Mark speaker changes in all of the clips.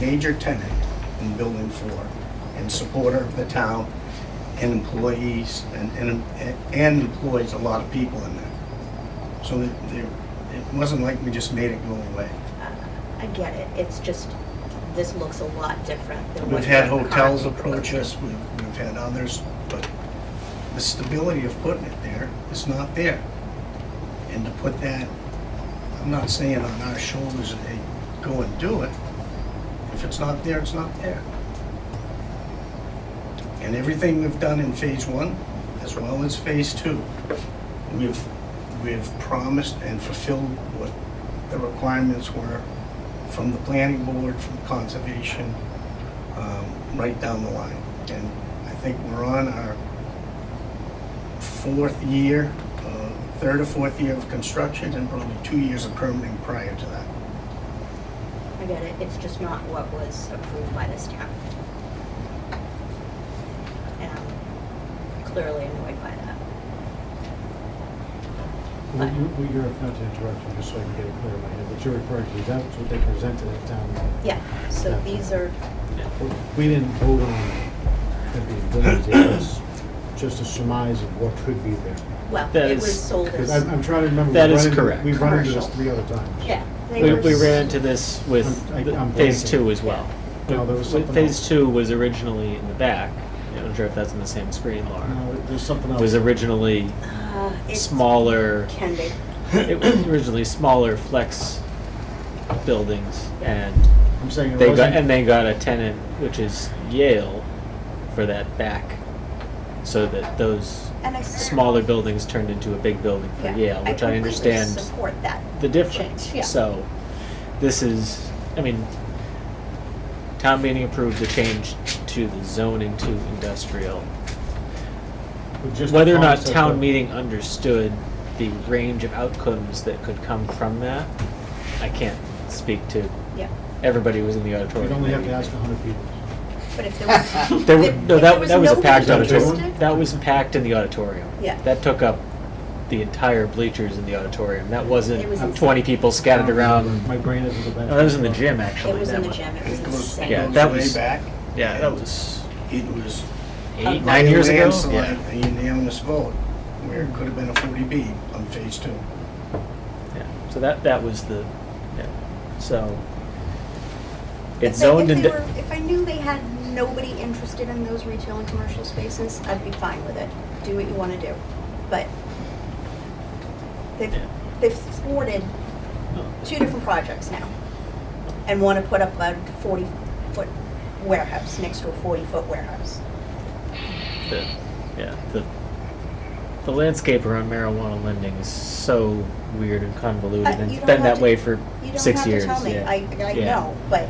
Speaker 1: major tenant in Building 4 and supporter of the town and employees, and, and and employs a lot of people in there. So it, it- it wasn't like we just made it go away.
Speaker 2: I get it, it's just, this looks a lot different than what.
Speaker 1: We've had
Speaker 2: you're
Speaker 1: hotels
Speaker 2: currently
Speaker 1: approach
Speaker 2: proposing.
Speaker 1: us, we've, we've had others, but the stability of putting it there is not there. And to put that, I'm not saying on our shoulders, hey, go and do it. If it's not there, it's not there. And everything we've done in phase one, as well as phase two, we've, we've promised and fulfilled what the requirements were from the planning board, from conservation, um, right down the line. And I think we're on our fourth year, uh, third or fourth year of construction, and probably two years of permitting prior to that.
Speaker 2: I get it, it's just not what was approved by this town. And I'm clearly annoyed by that.
Speaker 3: What you- what you're, not to interrupt you, just so I can get it clear in my head, what you're referring to, is that what they presented at town meeting?
Speaker 2: Yeah, so these are,
Speaker 3: We didn't vote on the buildings, it was just a surmise of what could be there.
Speaker 2: well,
Speaker 4: That
Speaker 2: it
Speaker 4: is-
Speaker 2: was sold
Speaker 3: Because
Speaker 2: as,
Speaker 3: I'm, I'm trying to remember.
Speaker 4: That
Speaker 3: we've
Speaker 4: is
Speaker 3: run into-
Speaker 4: correct.
Speaker 3: We've run into this
Speaker 1: Commercial.
Speaker 3: three other times.
Speaker 2: yeah. they
Speaker 4: We,
Speaker 2: were
Speaker 4: we ran
Speaker 2: sold-
Speaker 4: into this
Speaker 3: I'm-
Speaker 4: with
Speaker 3: I- I'm
Speaker 4: the- phase
Speaker 3: blanking.
Speaker 4: two as well.
Speaker 3: No, there was
Speaker 4: Wh-
Speaker 3: something
Speaker 4: Phase
Speaker 3: else.
Speaker 4: two was originally in the back. I'm not sure if that's in the same screen, Laura.
Speaker 3: No, there's something else.
Speaker 4: Was originally
Speaker 2: Uh, it's-
Speaker 4: smaller,
Speaker 2: Can they,
Speaker 4: it was originally smaller flex buildings and
Speaker 3: I'm saying it
Speaker 4: they got,
Speaker 3: wasn't,
Speaker 4: and they got a tenant, which is Yale, for that back. So that those
Speaker 2: and I.
Speaker 4: smaller buildings turned into a big building for
Speaker 2: Yeah,
Speaker 4: Yale, which I
Speaker 2: completely
Speaker 4: understand
Speaker 2: Support that.
Speaker 4: the difference.
Speaker 2: Change, yeah.
Speaker 4: So, this is, I mean, town meeting approved the change to the zoning to industrial.
Speaker 3: but just the
Speaker 4: Whether or not
Speaker 3: concept
Speaker 4: town
Speaker 3: of-
Speaker 4: meeting understood the range of outcomes that could come from that, I can't speak to.
Speaker 2: Yeah,
Speaker 4: Everybody who was in the auditorium.
Speaker 3: You'd only have to
Speaker 4: that
Speaker 3: ask
Speaker 4: evening.
Speaker 3: hundred people.
Speaker 2: but if there was.
Speaker 4: There were,
Speaker 2: if-
Speaker 4: no,
Speaker 2: if there
Speaker 4: that, that was a
Speaker 2: nobody
Speaker 4: packed
Speaker 3: interested-
Speaker 4: auditorium. That was packed in the auditorium.
Speaker 2: Yeah.
Speaker 4: That took up the entire bleachers in the auditorium. That
Speaker 2: It was
Speaker 4: wasn't twenty people scattered around.
Speaker 3: My brain is in the back.
Speaker 4: No, that was in the gym, actually.
Speaker 2: It was
Speaker 4: that
Speaker 2: in the
Speaker 4: one.
Speaker 2: gym, it was
Speaker 1: It goes,
Speaker 2: insane.
Speaker 4: Yeah,
Speaker 1: it
Speaker 4: that
Speaker 1: goes way
Speaker 4: was-
Speaker 1: back.
Speaker 4: Yeah, that was
Speaker 1: It was.
Speaker 4: eight,
Speaker 1: by
Speaker 4: nine years ago.
Speaker 1: landslide,
Speaker 4: Yeah.
Speaker 1: A unanimous vote, where it could have been a 40B on phase two.
Speaker 4: yeah. So that that was the. Yeah. So
Speaker 2: If
Speaker 4: it's
Speaker 2: they- if
Speaker 4: zoned
Speaker 2: they
Speaker 4: into.
Speaker 2: were- If I knew they had nobody interested in those retail and commercial spaces, I'd be fine with it. Do what you want to do. But they've,
Speaker 4: Yeah.
Speaker 2: they've thwarted
Speaker 4: Oh,
Speaker 2: two different projects now and want to put up a 40-foot warehouse next to a 40-foot warehouse.
Speaker 4: the, yeah, the the landscape around marijuana lending is so weird and convoluted,
Speaker 2: Uh,
Speaker 4: and
Speaker 2: you don't
Speaker 4: it's been
Speaker 2: have
Speaker 4: that
Speaker 2: to-
Speaker 4: way for
Speaker 2: You don't
Speaker 4: six
Speaker 2: have
Speaker 4: years.
Speaker 2: to tell me.
Speaker 4: yeah.
Speaker 2: I, I
Speaker 4: Yeah.
Speaker 2: know, but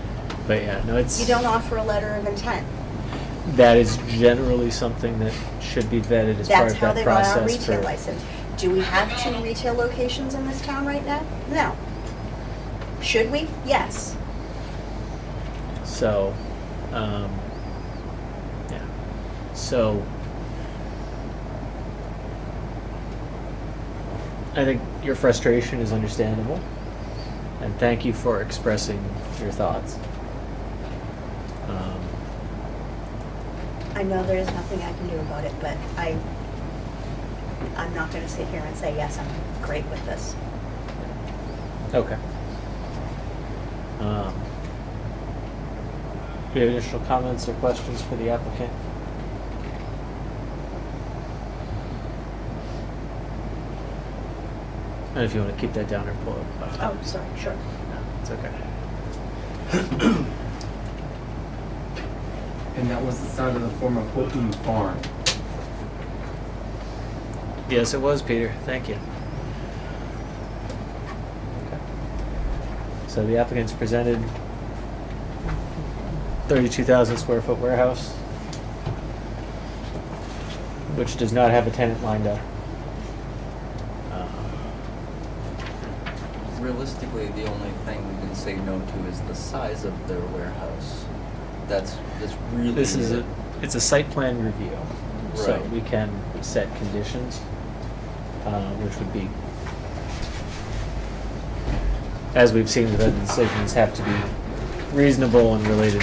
Speaker 4: But yeah, no, it's
Speaker 2: you don't offer a letter of intent.
Speaker 4: that is generally something that should be vetted as
Speaker 2: That's
Speaker 4: part
Speaker 2: how
Speaker 4: of that
Speaker 2: they got our
Speaker 4: process
Speaker 2: retail
Speaker 4: for
Speaker 2: license. Do we have two retail locations in this town right now? No. Should we? Yes.
Speaker 4: So, um, yeah. So, I think your frustration is understandable, and thank you for expressing your thoughts. Um,
Speaker 2: I know there is nothing I can do about it, but I, I'm not gonna sit here and say, yes, I'm great with this.
Speaker 4: okay. Um, do you have additional comments or questions for the applicant? And if you want to keep that down or pull it up. uh,
Speaker 2: Oh, sorry, sure.
Speaker 4: No, it's okay.
Speaker 5: And that was the sound of the former Houghton Farm.
Speaker 4: Yes, it was, Peter. Thank you. So the applicant's presented thirty-two thousand square foot warehouse, which does not have a tenant lined up. Uh,
Speaker 6: Realistically, the only thing we can say no to is the size of their warehouse. That's, that's really.
Speaker 4: This is
Speaker 6: it.
Speaker 4: a, it's a site plan review, so
Speaker 6: Right.
Speaker 4: we can set conditions, uh, which would be, as we've seen, the decisions have to be reasonable and related